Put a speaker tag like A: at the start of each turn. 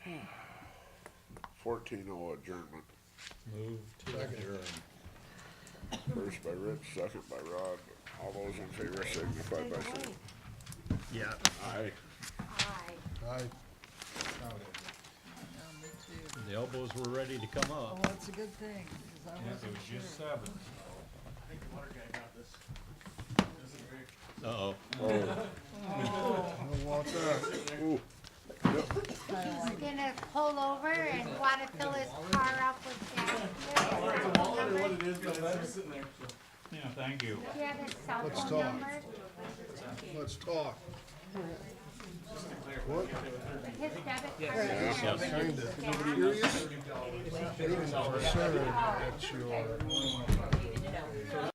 A: Fourteen oh adjournment.
B: Move to adjourn.
A: First by Rich, second by Rod. All those in favor signify by saying
B: Yeah.
A: aye.
C: Aye.
D: I,
E: Yeah, me too.
B: The elbows were ready to come
E: Oh,
B: up.
E: that's a good thing, 'cause I wasn't sure.
B: seven. Uh-oh.
D: don't want that.
A: Ooh,
E: Kinda
C: He's
E: like,
C: gonna pull over and wanna fill his car up with gas. Do you have his cell phone number?
B: Yeah, thank you.
C: Do you have his cell
D: Let's
C: phone
D: talk.
C: number?
D: Let's talk. What,
C: His debit card
B: Yes.
C: number?
D: kinda curious? Concerned at your